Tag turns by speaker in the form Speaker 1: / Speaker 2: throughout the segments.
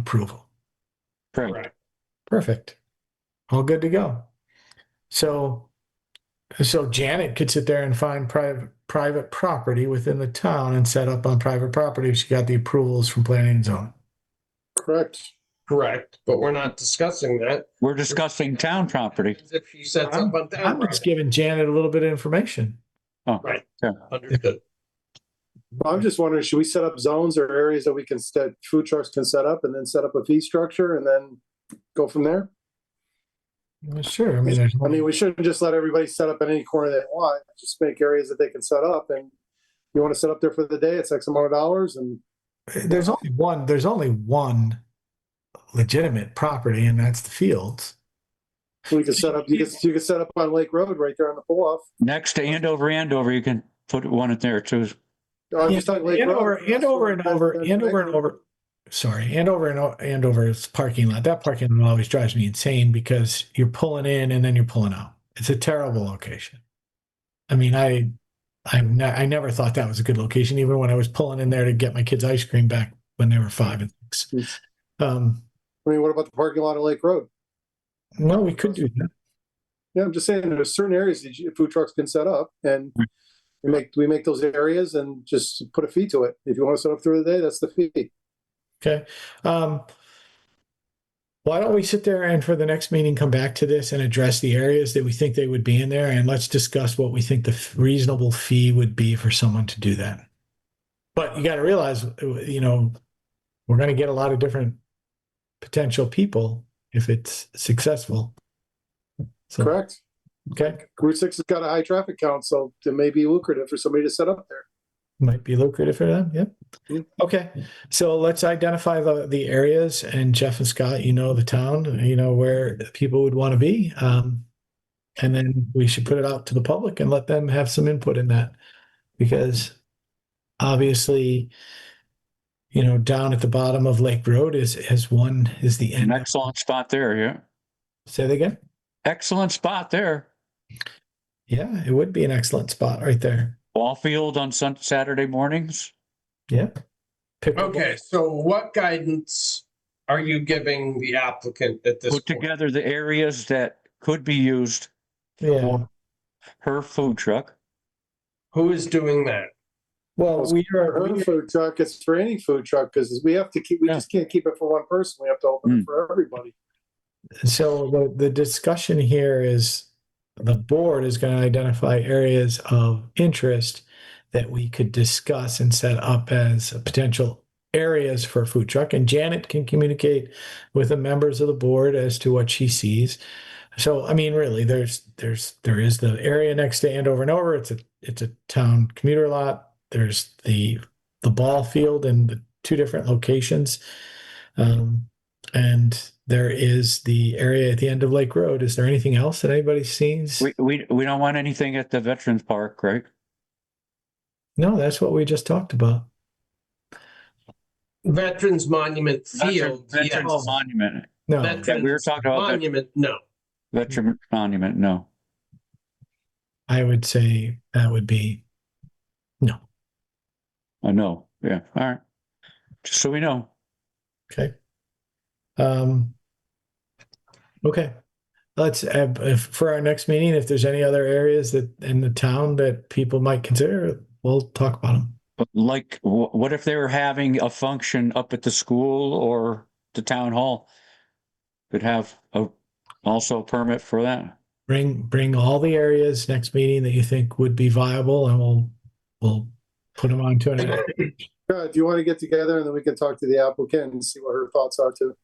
Speaker 1: approval.
Speaker 2: Correct.
Speaker 1: Perfect. All good to go. So, so Janet could sit there and find private, private property within the town and set up on private property. if She got the approvals from planning and zoning.
Speaker 3: Correct.
Speaker 2: Correct.
Speaker 3: But we're not discussing that.
Speaker 2: We're discussing town property.
Speaker 3: If she sets up on town
Speaker 1: I'm just
Speaker 3: property.
Speaker 1: giving Janet a little bit of information.
Speaker 3: Understood.
Speaker 4: I'm just wondering, should we set up zones or areas that we can set, food trucks can set up and then set up a fee structure and then go from there?
Speaker 1: Well, Sure, I mean, there's.
Speaker 4: I mean, we shouldn't just let everybody set up in any corner they want, just make areas that they can set up and you want to set up there for the day, it's X amount of dollars and
Speaker 1: There's only one, there's only one legitimate property and that's the fields.
Speaker 4: we can set up, you can, you can set up on Lake Road right there on the pull-off.
Speaker 2: Next to Andover, Andover, you can put one in there too.
Speaker 4: Uh, I'm
Speaker 1: Yeah,
Speaker 4: just talking Lake
Speaker 1: And over,
Speaker 4: Road.
Speaker 1: and over and over, and over and over, sorry, and over and, o- and over is parking lot. That parking lot always drives me insane because you're pulling in and then you're pulling out. It's a terrible location. I mean, I, I'm not, I never thought that was a good location, even when I was pulling in there to get my kids ice cream back when they were five and six. Um,
Speaker 4: I mean, what about the parking lot of Lake Road?
Speaker 1: no, we could do that.
Speaker 4: Yeah, I'm just saying, there's certain areas that you- food trucks can set up and
Speaker 2: Right.
Speaker 4: we make, we make those areas and just put a fee to it. If you want to set up through the day, that's the fee.
Speaker 1: Okay. Um, why don't we sit there and for the next meeting, come back to this and address the areas that we think they would be in there and let's discuss what we think the f- reasonable fee would be for someone to do that. But you got to realize, uh, you know, we're going to get a lot of different potential people if it's successful. So,
Speaker 4: Correct.
Speaker 1: Okay.
Speaker 4: Route six has got a high traffic count, so it may be lucrative for somebody to set up there.
Speaker 1: Might be lucrative for them.
Speaker 4: Yeah.
Speaker 1: Yep. Okay. So let's identify the, the areas and Jeff and Scott, you know, the town, you know, where people would want to be. Um, and then we should put it out to the public and let them have some input in that because obviously, you know, down at the bottom of Lake Road is, is one, is the
Speaker 2: An
Speaker 1: end.
Speaker 2: excellent spot there, yeah.
Speaker 1: Say that again.
Speaker 2: Excellent spot there.
Speaker 1: Yeah, it would be an excellent spot right there.
Speaker 2: Ball field on Sun, Saturday mornings.
Speaker 1: Yeah. Pick-
Speaker 3: Okay, so what guidance are you giving the applicant at this
Speaker 2: Put
Speaker 3: point?
Speaker 2: together the areas that could be used
Speaker 1: Yeah.
Speaker 2: for her food truck.
Speaker 3: Who is doing that?
Speaker 1: Well, we are.
Speaker 4: For
Speaker 1: we
Speaker 4: Her
Speaker 1: are-
Speaker 4: food truck, it's for any food truck, because we have to keep, we
Speaker 2: Yeah.
Speaker 4: just can't keep it for one person. We have to open
Speaker 2: Mm.
Speaker 4: it for everybody.
Speaker 1: So the, the discussion here is the board is going to identify areas of interest that we could discuss and set up as potential areas for a food truck. And Janet can communicate with the members of the board as to what she sees. So, I mean, really, there's, there's, there is the area next to Andover and Over. It's a, it's a town commuter lot. There's the, the ball field and the two different locations. Um, and there is the area at the end of Lake Road. Is there anything else that anybody's seen?
Speaker 2: We, we, we don't want anything at the Veterans Park, right?
Speaker 1: No, that's what we just talked about.
Speaker 3: Veterans Monument
Speaker 2: Veteran-
Speaker 3: Field,
Speaker 2: Veterans
Speaker 3: yes.
Speaker 2: Monument,
Speaker 1: No,
Speaker 2: Yeah, we were
Speaker 3: Veterans
Speaker 2: talking about that
Speaker 3: Monument, no.
Speaker 2: Veteran Monument, no.
Speaker 1: I would say that would be no.
Speaker 2: I know, yeah, all right. Just so we know.
Speaker 1: Okay. Um, okay. Let's uh, if, for our next meeting. If there's any other areas that in the town that people might consider, we'll talk about them.
Speaker 2: But like, wh- what if they were having a function up at the school or the town hall? Could have a, also a permit for that.
Speaker 1: Bring bring all the areas next meeting that you think would be viable, and we'll we'll put them onto an.
Speaker 4: Yeah, if you want to get together and then we can talk to the applicant and see what her thoughts are too.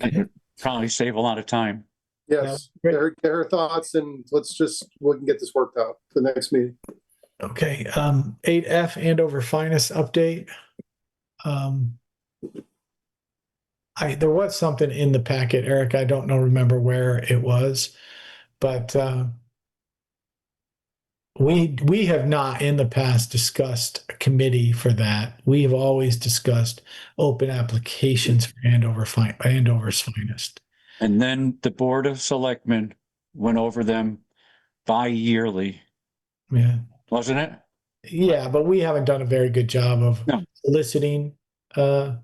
Speaker 2: It would Probably save a lot of time.
Speaker 4: Yes,
Speaker 1: Yeah,
Speaker 4: get her, get her thoughts and let's just, we can get this worked out for the next meeting.
Speaker 1: Okay, um, eight F Andover Finest update. Um. I, there was something in the packet, Eric, I don't know, remember where it was, but, uh. We, we have not in the past discussed a committee for that. We've always discussed open applications for Andover Fin- Andover's Finest.
Speaker 2: And then the Board of Selectmen went over them bi-yearly,
Speaker 1: Yeah.
Speaker 2: wasn't it?
Speaker 1: Yeah, but we haven't done a very good job of
Speaker 2: No.
Speaker 1: soliciting uh